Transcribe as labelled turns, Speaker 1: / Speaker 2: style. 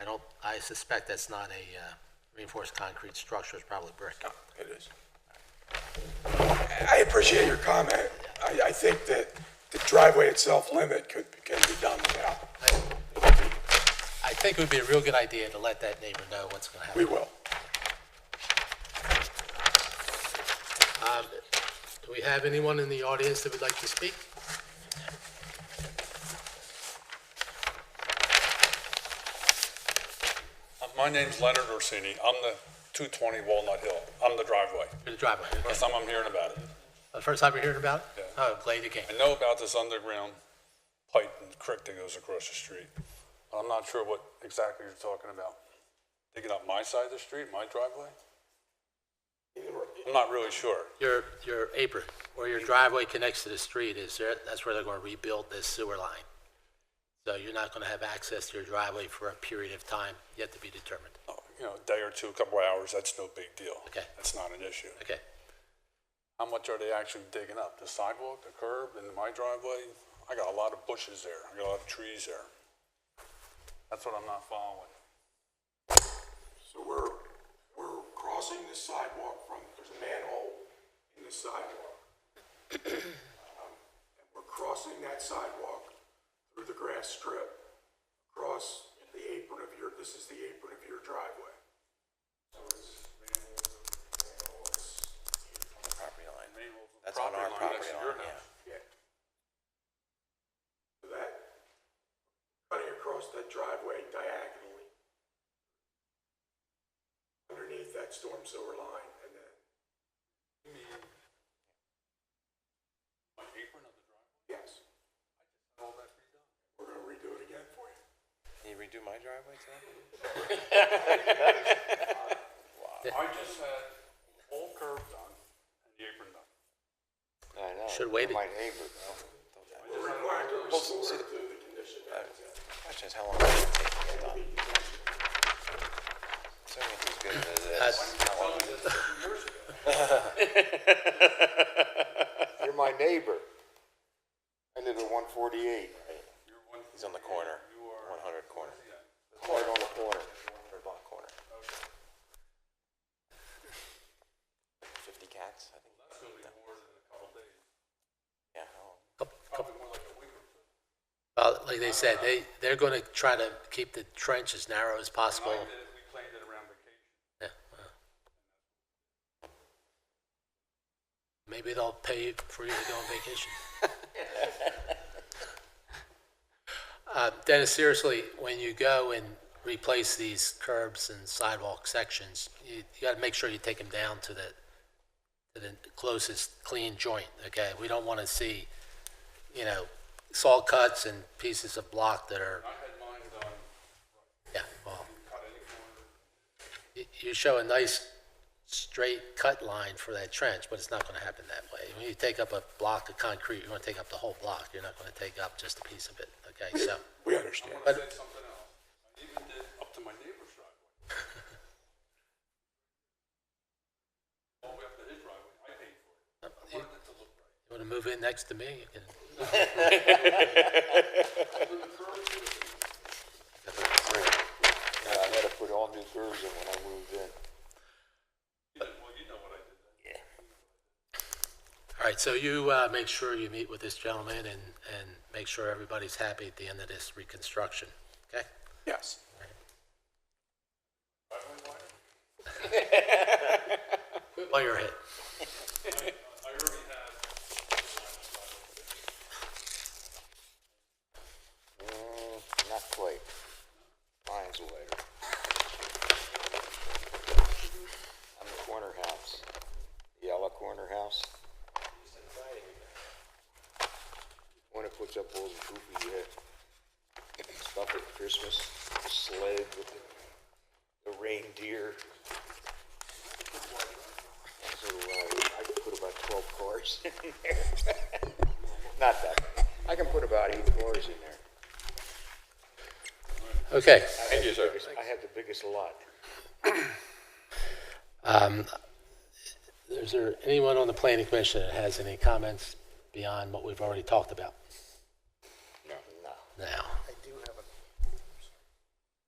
Speaker 1: I don't, I suspect that's not a uh, reinforced concrete structure, it's probably brick.
Speaker 2: It is. I appreciate your comment. I, I think that the driveway itself limit could, can be done without.
Speaker 1: Oh. I think it would be a real good idea to let that neighbor know what's gonna happen.
Speaker 2: We will.
Speaker 1: Do we have anyone in the audience that would like to speak?
Speaker 3: Uh, My name's Leonard Orsini. I'm the 220 Walnut Hill. I'm the driveway.
Speaker 1: Through the driveway, okay.
Speaker 3: First time I'm hearing about it.
Speaker 1: The First time you're hearing about it?
Speaker 3: Yeah.
Speaker 1: Oh, glad you came.
Speaker 3: I know about this underground pipe and creek that goes across the street, but I'm not sure what exactly you're talking about. Digging up my side of the street, my driveway? I'm not really sure.
Speaker 1: Your, your apron, where your driveway connects to the street, is there, that's where they're gonna rebuild this sewer line. So you're not gonna have access to your driveway for a period of time yet to be determined.
Speaker 3: Oh, You know, a day or two, a couple of hours, that's no big deal.
Speaker 1: Okay.
Speaker 3: That's not an issue.
Speaker 1: Okay,
Speaker 3: How much are they actually digging up? The sidewalk, the curb, and my driveway? I got a lot of bushes there. I got a lot of trees there. That's what I'm not following.
Speaker 2: So we're, we're crossing the sidewalk from, there's a manhole in the sidewalk. Um, and We're crossing that sidewalk through the grass strip, across the apron of your, this is the apron of your driveway. So it's manhole, manhole, it's-
Speaker 4: property line.
Speaker 3: Mabel's
Speaker 4: That's on our
Speaker 3: next
Speaker 4: property
Speaker 3: to your
Speaker 4: line,
Speaker 2: Yeah.
Speaker 3: house.
Speaker 4: yeah.
Speaker 2: So That, cutting across that driveway diagonally underneath that storm sewer line and then,
Speaker 3: My apron of the driveway,
Speaker 2: yes,
Speaker 3: all that redone.
Speaker 2: we're gonna redo it again for you.
Speaker 4: Can you redo my driveway today?
Speaker 3: I just had whole curb done and the apron done.
Speaker 4: I know.
Speaker 1: Should've waited.
Speaker 4: My neighbor, though.
Speaker 2: We're required to restore it to the condition that it's in.
Speaker 4: Question is, how long does it take to get done? Assuming he's good as this. how long-
Speaker 5: You're my neighbor. I live at one forty-eight,
Speaker 4: He's on the corner, one hundred corner,
Speaker 5: right on the corner.
Speaker 4: or block corner. Fifty cats, I think. That's gonna be more than a couple days. Yeah, how long?
Speaker 1: well, like they said, they, they're gonna try to keep the trench as narrow as
Speaker 3: Oh.
Speaker 1: possible.
Speaker 3: We planned it around vacation.
Speaker 1: Yeah, well. Maybe they'll pay for you to go on vacation. Uh, Dennis, seriously, when you go and replace these curbs and sidewalk sections, you, you gotta make sure you take them down to the, to the closest clean joint, okay? We don't wanna see, you know, saw cuts and pieces of block that are,
Speaker 3: I had mine done,
Speaker 1: yeah, well.
Speaker 3: cut any corner.
Speaker 1: y- you show a nice straight cut line for that trench, but it's not gonna happen that way. When you take up a block of concrete, you're gonna take up the whole block, you're not gonna take up just a piece of it, okay, so.
Speaker 2: We understand.
Speaker 3: I said something else. I even did up to my neighbor's driveway. All the way up to his driveway. I paid for it. I
Speaker 1: You
Speaker 3: wanted it to look right.
Speaker 1: wanna move in next to me, you can,
Speaker 5: Yeah, Uh, I had to put all new curves in when I moved in.
Speaker 3: He said, well, you know what I did then.
Speaker 1: all right, so you, uh, make sure you meet with this gentleman and, and make sure everybody's happy at the end of this reconstruction, okay?
Speaker 2: Yes.
Speaker 1: While you're ahead.
Speaker 3: I already had
Speaker 5: Mm, not quite. Mine's later. I'm the corner house, yellow corner house. One that puts up all the goofy, uh, stuff at Christmas, the sled with the, the reindeer. So, uh, I could put about twelve cars in there. Not that, I can put about eight cars in there.
Speaker 1: Okay,
Speaker 5: Thank you, sir. I have the biggest lot.
Speaker 1: um, is there anyone on the planning commission that has any comments beyond what we've already talked about
Speaker 5: No. No.
Speaker 1: now?